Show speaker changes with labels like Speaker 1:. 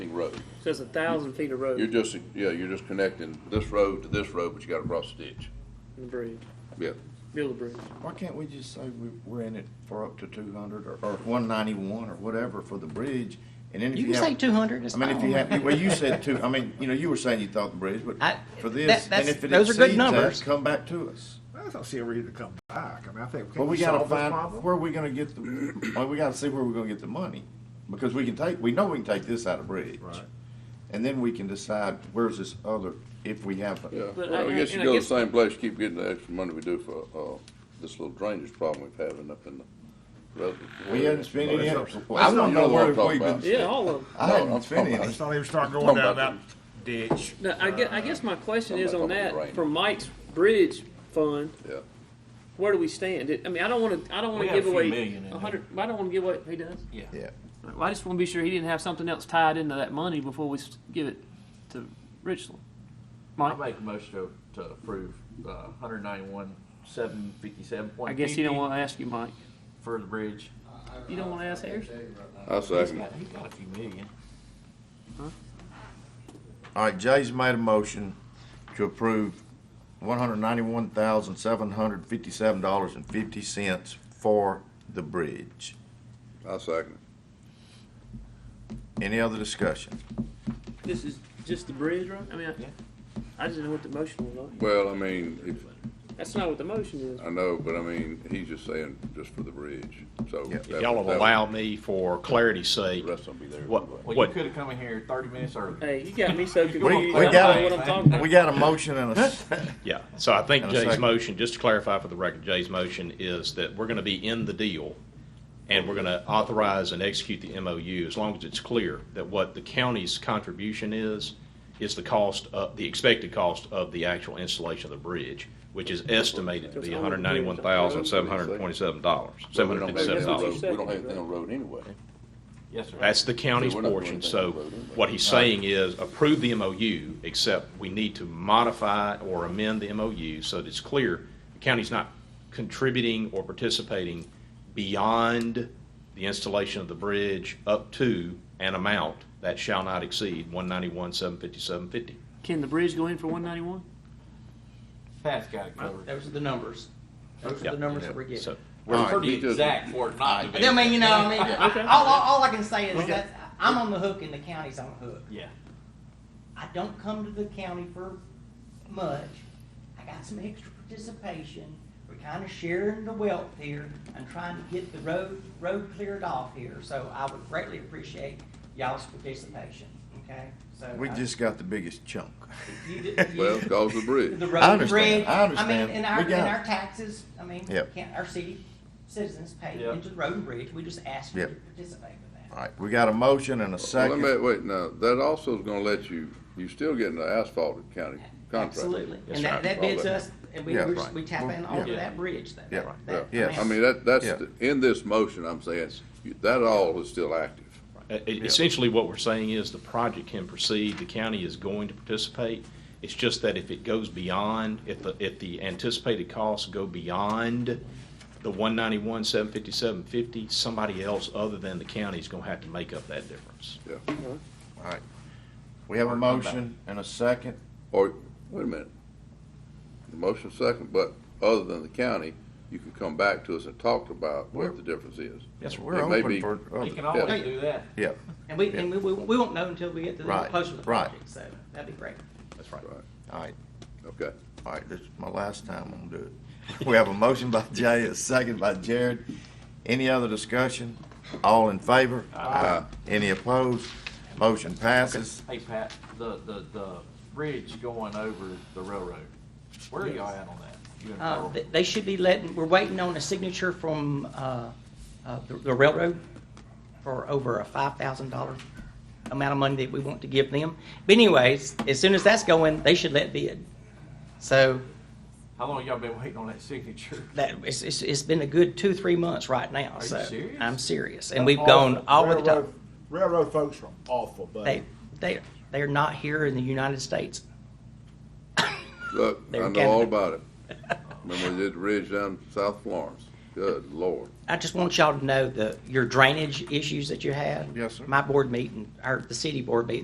Speaker 1: road.
Speaker 2: So it's a thousand feet of road
Speaker 1: You're just, yeah, you're just connecting this road to this road, but you gotta cross the ditch.
Speaker 2: and a bridge,
Speaker 1: Yeah.
Speaker 2: build a bridge.
Speaker 3: Why can't we just say we, we're in it for up to two hundred or, or one ninety-one or whatever for the bridge? And then if
Speaker 4: You
Speaker 3: you
Speaker 4: can
Speaker 3: have.
Speaker 4: say two hundred, it's
Speaker 3: I mean, if you
Speaker 4: fine.
Speaker 3: have, well, you said two, I mean, you know, you were saying you thought the bridge, but
Speaker 4: I-
Speaker 3: for
Speaker 4: that-
Speaker 3: this,
Speaker 4: that's-
Speaker 3: and if it
Speaker 4: those are good
Speaker 3: exceeds that,
Speaker 4: numbers.
Speaker 3: come back to us.
Speaker 5: I don't see a reason to come back. I mean, I think,
Speaker 3: But
Speaker 5: can
Speaker 3: we
Speaker 5: we
Speaker 3: gotta
Speaker 5: solve this
Speaker 3: find,
Speaker 5: problem?
Speaker 3: where are we gonna get the, well, we gotta see where we're gonna get the money. Because we can take, we know we can take this out of bridge.
Speaker 5: Right.
Speaker 3: And then we can decide where's this other, if we have.
Speaker 1: Yeah,
Speaker 2: But
Speaker 1: well,
Speaker 2: I-
Speaker 1: I guess you
Speaker 2: and
Speaker 1: go
Speaker 2: I
Speaker 1: to the
Speaker 2: guess-
Speaker 1: same place, keep getting the extra money we do for, uh, this little drainage problem we've having up in the. res-
Speaker 3: We haven't spent any, I
Speaker 5: That's-
Speaker 3: don't know
Speaker 1: not what
Speaker 3: where
Speaker 1: I'm talking
Speaker 3: we've
Speaker 1: about.
Speaker 3: been,
Speaker 2: Yeah, all of them.
Speaker 3: I
Speaker 1: No,
Speaker 3: haven't
Speaker 1: I'm
Speaker 3: spent
Speaker 1: talking
Speaker 3: any.
Speaker 5: Let's not even start
Speaker 1: Talking
Speaker 5: going down that
Speaker 1: about
Speaker 5: ditch.
Speaker 2: No, I guess, I guess my question is on
Speaker 1: Somebody told me
Speaker 2: that,
Speaker 1: to
Speaker 2: for Mike's bridge fund,
Speaker 1: Yeah,
Speaker 2: where do we stand? It- I mean, I don't wanna, I don't
Speaker 6: We
Speaker 2: wanna
Speaker 6: got a
Speaker 2: give
Speaker 6: few
Speaker 2: away
Speaker 6: million in
Speaker 2: a hundred, I don't wanna give away, he does?
Speaker 6: Yeah.
Speaker 3: Yeah.
Speaker 2: Well, I just wanna be sure he didn't have something else tied into that money before we s- give it to Richland.
Speaker 6: I
Speaker 2: Mike,
Speaker 6: make a motion to, to approve, uh, hundred ninety-one, seven fifty-seven
Speaker 2: I
Speaker 6: point
Speaker 2: guess you don't
Speaker 6: fifty
Speaker 2: wanna ask you, Mike.
Speaker 6: for the bridge.
Speaker 2: You don't wanna ask Harrison?
Speaker 1: I
Speaker 6: He's
Speaker 1: second.
Speaker 6: got, he's got a few million.
Speaker 3: All right, Jay's made a motion to approve one hundred ninety-one thousand, seven hundred fifty-seven dollars and fifty cents for the bridge.
Speaker 1: I second.
Speaker 3: Any other discussion?
Speaker 2: This is just the bridge, right? I mean,
Speaker 6: Yeah.
Speaker 2: I, I just didn't know what the motion was.
Speaker 1: Well, I mean, if,
Speaker 2: That's not what the motion is.
Speaker 1: I know, but I mean, he's just saying just for the bridge, so.
Speaker 3: Yeah.
Speaker 1: that-
Speaker 7: If y'all will
Speaker 1: that-
Speaker 7: allow me for clarity's sake,
Speaker 1: The rest will be there.
Speaker 7: what,
Speaker 6: Well, you
Speaker 7: what,
Speaker 6: could've come in here thirty minutes early.
Speaker 2: Hey, you got me so confused.
Speaker 3: We,
Speaker 2: I
Speaker 3: we
Speaker 2: don't
Speaker 3: got
Speaker 2: know what I'm talking
Speaker 3: a,
Speaker 2: about.
Speaker 3: we got a motion and a, s-
Speaker 7: yeah. So I think
Speaker 3: And a
Speaker 7: Jay's
Speaker 3: second.
Speaker 7: motion, just to clarify for the record, Jay's motion is that we're going to be in the deal and we're going to authorize and execute the MOU as long as it's clear that what the county's contribution is, is the cost, of the expected cost of the actual installation of the bridge, which is estimated to be $191,727,
Speaker 1: But we don't have anything on the road-
Speaker 7: $757.
Speaker 1: We don't have anything on the road anyway.
Speaker 6: Yes, sir.
Speaker 7: That's the county's
Speaker 1: So we're not doing
Speaker 7: portion,
Speaker 1: anything
Speaker 7: so
Speaker 1: about it anyway.
Speaker 7: what he's saying is approve the MOU, except we need to modify or amend the MOU so that it's clear the county's not contributing or participating beyond the installation of the bridge up to an amount that shall not exceed one ninety-one, seven fifty-seven, fifty.
Speaker 2: Can the bridge go in for 191?
Speaker 6: Pat's got it covered.
Speaker 8: Those are the numbers. Those
Speaker 7: Yeah.
Speaker 8: are the numbers that we're getting.
Speaker 7: So,
Speaker 6: We're
Speaker 3: Alright,
Speaker 6: pretty
Speaker 1: he does-
Speaker 6: exact for it not to be.
Speaker 8: And I mean, you know, I mean, all, all, all I can say is that I'm on the hook and the county's on the hook.
Speaker 6: Yeah.
Speaker 8: I don't come to the county for much. I got some extra participation. We're kind of sharing the wealth here and trying to get the road, road cleared off here. So I would greatly appreciate y'all's participation, okay? So
Speaker 3: we
Speaker 8: I-
Speaker 3: just got the biggest chunk.
Speaker 8: you did- you-
Speaker 1: Well, cause the bridge.
Speaker 8: The
Speaker 3: I
Speaker 8: road and
Speaker 3: understand.
Speaker 8: bridge.
Speaker 3: I understand.
Speaker 8: mean, and
Speaker 3: We
Speaker 8: our, and
Speaker 3: got it.
Speaker 8: our taxes, I mean,
Speaker 3: Yep.
Speaker 8: can't, our city citizens pay
Speaker 6: Yep.
Speaker 8: into the road and bridge. We just ask you to
Speaker 3: Yep.
Speaker 8: participate with
Speaker 3: All
Speaker 8: that.
Speaker 3: right, we got a motion and a
Speaker 1: Well, let
Speaker 3: second.
Speaker 1: me, wait, now, that also is gonna let you, you still getting the asphalt county contract.
Speaker 8: Absolutely.
Speaker 7: Yes,
Speaker 8: And
Speaker 7: sir.
Speaker 8: that, that bids us, and we,
Speaker 3: Yeah,
Speaker 8: we're just-
Speaker 3: right.
Speaker 8: we tap in
Speaker 3: Well,
Speaker 8: onto
Speaker 6: yeah.
Speaker 8: that bridge though.
Speaker 3: Yeah.
Speaker 8: That-
Speaker 1: Yeah,
Speaker 3: Yes.
Speaker 1: I mean, that, that's,
Speaker 3: Yeah.
Speaker 1: the- in this motion, I'm saying, you- that all is still active.
Speaker 7: e- e- essentially what we're saying is the project can proceed, the county is going to participate. It's just that if it goes beyond, if the, if the anticipated costs go beyond the one ninety-one, seven fifty-seven, fifty, somebody else other than the county is gonna have to make up that difference.
Speaker 1: Yeah.
Speaker 3: All right, we have a motion and a second.
Speaker 1: Or, wait a minute. The motion second, but other than the county, you can come back to us and talk about what the difference is.
Speaker 7: Yes, sir.
Speaker 3: We're
Speaker 1: It may
Speaker 3: open
Speaker 1: be-
Speaker 3: for,
Speaker 6: You
Speaker 3: other-
Speaker 6: can always
Speaker 1: Yeah.
Speaker 6: do that.
Speaker 3: yeah,
Speaker 8: And we, and we, we we won't know until we get to the
Speaker 3: Right.
Speaker 8: closer to the
Speaker 3: Right.
Speaker 8: project, so that'd be great.
Speaker 7: That's right.
Speaker 1: Right,
Speaker 3: all right,
Speaker 1: okay.
Speaker 3: all right, this is my last time I'm gonna do it. We have a motion by Jay, a second by Jared. Any other discussion? All in favor? Aye. Any opposed? Motion passes.
Speaker 6: Hey, Pat, the, the, the bridge going over the railroad, where are y'all at on that? You and
Speaker 8: Uh,
Speaker 6: Carl?
Speaker 8: they- they should be letting, we're waiting on a signature from, uh, uh, the- the railroad for over a five thousand dollar amount of money that we want to give them. But anyways, as soon as that's going, they should let bid. So
Speaker 6: How long y'all been waiting on that signature?
Speaker 8: that, it's, it's, it's been a good two, three months right now,
Speaker 6: you
Speaker 8: so.
Speaker 6: serious?
Speaker 8: I'm serious, and
Speaker 5: That's
Speaker 8: we've gone
Speaker 5: awful.
Speaker 8: all over the top.
Speaker 5: Railroad- Railroad folks are awful,
Speaker 8: They,
Speaker 5: buddy.
Speaker 8: they, they're not here in the United States.
Speaker 1: Look,
Speaker 8: They're
Speaker 1: I know all
Speaker 8: candidate.
Speaker 1: about it. Remember we did the ridge down South Florence? Good lord.
Speaker 8: I just want y'all to know the, your drainage issues that you had.
Speaker 3: Yes, sir.
Speaker 8: My board meeting, or the city board meeting